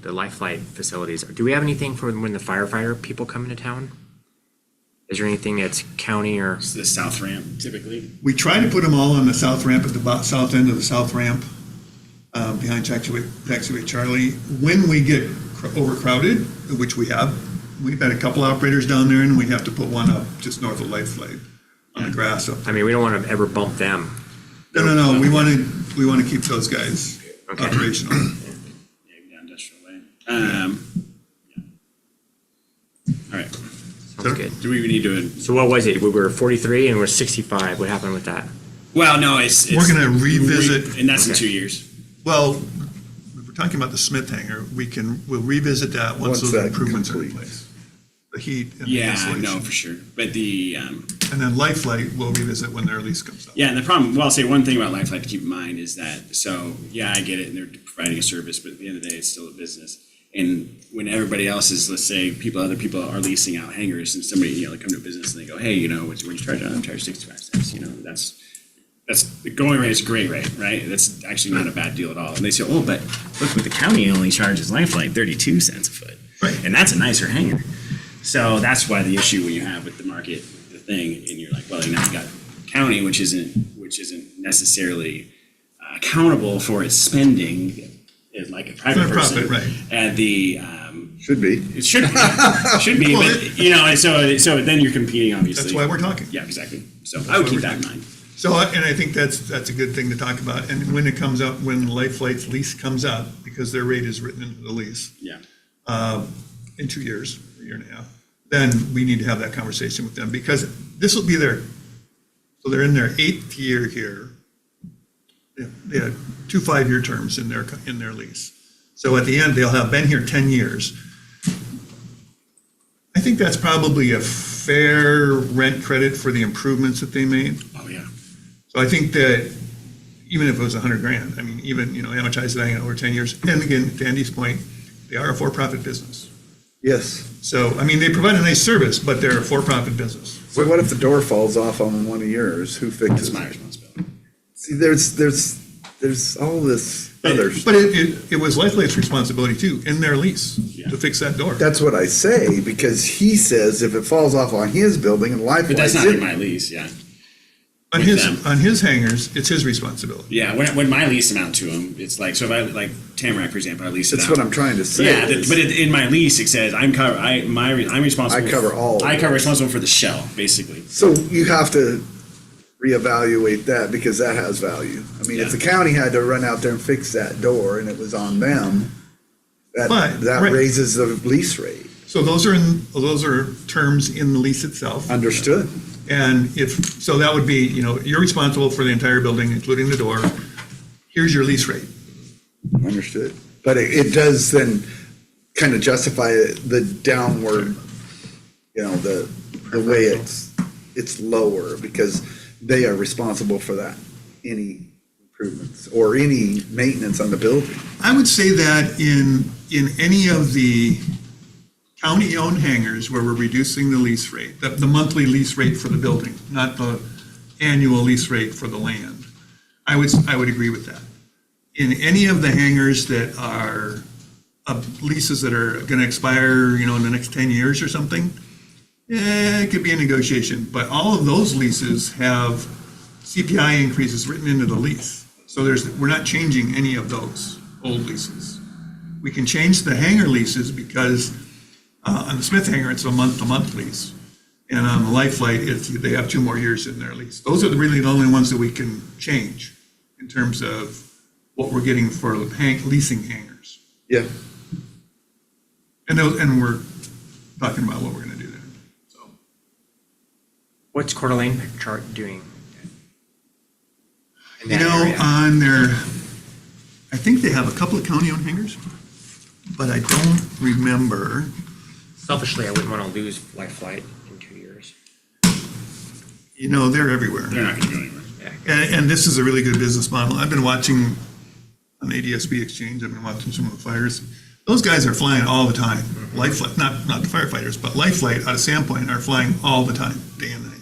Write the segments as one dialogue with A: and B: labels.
A: the life flight facilities, do we have anything for when the firefighter people come into town? Is there anything that's county or,
B: It's the south ramp typically.
C: We try to put them all on the south ramp, at the bo- south end of the south ramp, um, behind Taxiway, Taxiway Charlie. When we get cr- overcrowded, which we have, we've had a couple operators down there, and we have to put one up just north of Life Flight on the grass. So-
A: I mean, we don't want to ever bump them.
C: No, no, no, we want to, we want to keep those guys
A: Okay.
C: operational.
B: Yeah, down industrial way. Um, yeah. All right.
A: Sounds good.
B: Do we even need to?
A: So what was it? We were forty-three and we're sixty-five. What happened with that?
B: Well, no, it's. it's-
C: We're gonna revisit-
B: And that's in
A: Okay.
B: two years.
C: Well, we we're talking about the Smith hangar, we can, we'll revisit that once
D: Once
C: those
D: that
C: improvements are in
D: completes.
C: place. The heat and the
B: Yeah, no,
C: insulation.
B: for sure. But the, um,
C: And then Life Flight, we'll revisit when their lease comes up.
B: yeah, and the problem, well, I'll say one thing about Lifeline to keep in mind is that, so, yeah, I get it, and they're providing a service, but at the end of the day, it's still a business. And when everybody else is, let's say, people, other people are leasing out hangars, and somebody, you know, they come to a business and they go, hey, you know, what's, what you charge on? I'm charged sixty-five cents, you know, that's, that's, the going rate is a great rate, right? That's actually not a bad deal at all. And they say, oh, but look, but the county only charges Lifeline thirty-two cents a foot.
C: Right.
B: And that's a nicer hangar. So that's why the issue when you have with the market, the thing, and you're like, well, now you got county, which isn't, which isn't necessarily uh, accountable for its spending, uh, like a private
C: For
B: person.
C: profit, right.
B: And the, um,
D: Should be.
B: it should, be- should be,
C: Well,
B: but, you know, and so, so then you're competing, obviously.
C: That's why we're talking.
B: Yeah, exactly. So I would
C: why
B: keep
C: we're
B: that in mind.
C: So, I- and I think that's, that's a good thing to talk about, and when it comes up, when Life Flight's lease comes up, because their rate is written into the lease
B: Yeah.
C: in two years, a year and a half, then we need to have that conversation with them, because this will be their, so they're in their eighth year here. They- They had two five-year terms in their, in their lease. So at the end, they'll have been here 10 years. I think that's probably a fair rent credit for the improvements that they made.
B: Oh, yeah.
C: So I think that even if it was a hundred grand, I mean, even, you know, amortize that over ten years, and again, to Andy's point, they are a for-profit business.
D: Yes.
C: So, I mean, they provide a nice service, but they're a for-profit business.
D: So what if the door falls off on one of yours? Who
B: That's
D: fixes
B: my
D: it?
B: responsibility.
D: See, there's, there's, there's all this other.
C: But it, it, it was Lifelight's responsibility too, in their lease, to fix that door.
D: That's what I say, because he says if it falls off on his building and life.
B: But that's
D: flies
B: not in
D: in-
B: my lease, yeah.
C: On
B: with
C: his,
B: them.
C: on his hangers, it's his responsibility.
B: Yeah, when, when my lease amount to them, it's like, so if I, like Tamarack, for example, I lease it
D: That's
B: out.
D: what I'm trying to say.
B: Yeah, that-
D: is-
B: but it, in my lease, it says I'm cover, I, my, re- I'm responsible.
D: I cover all
B: I
D: of
B: cover
D: it.
B: responsible for the shell, basically.
D: So you have to reevaluate that because that has value. I mean, if the county had to run out there and fix that door and it was on them, that,
C: But,
D: that
C: right.
D: raises the lease rate.
C: So those are in, those are terms in the lease itself.
D: Understood?
C: And if, so that would be, you know, you're responsible for the entire building, including the door. Here's your lease rate.
D: Understood. But it, it does then kind of justify the downward, you know, the, the way it's, it's lower because they are responsible for that, any improvements or any maintenance on the building.
C: I would say that in, in any of the county-owned hangars where we're reducing the lease rate, the, the monthly lease rate for the building, not the annual lease rate for the land, I would, I would agree with that. In any of the hangars that are, uh, leases that are gonna expire, you know, in the next ten years or something, eh, it could be a negotiation, but all of those leases have CPI increases written into the lease. So there's, we're not changing any of those old leases. We can change the hangar leases because uh, on the Smith hangar, it's a month-to-month lease. And on the Life Flight, it's, they have two more years in their lease. Those are really the only ones that we can change in terms of what we're getting for hang- leasing hangars.
D: Yeah.
C: And those, and we're talking about what we're gonna do there, so.
A: What's Coeur d'Alene chart doing? in
C: You
A: that
C: know, uh,
A: area?
C: on their, I think they have a couple of county-owned hangars, but I don't remember.
A: Selfishly, I wouldn't want to lose Life Flight in two years.
C: You know, they're everywhere.
B: They're not gonna go anywhere.
C: And, and this is a really good business model. I've been watching on ADSB Exchange, I've been watching some of the flyers. Those guys are flying all the time.
A: Mm-hmm.
C: Life Flight, not, not the firefighters, but Life Flight out of Sandpoint are flying all the time, day and night.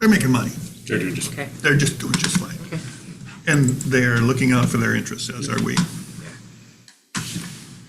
C: They're making money.
B: They're doing just,
A: Okay.
C: They're just doing just fine. And they're looking out for their interests, as are we.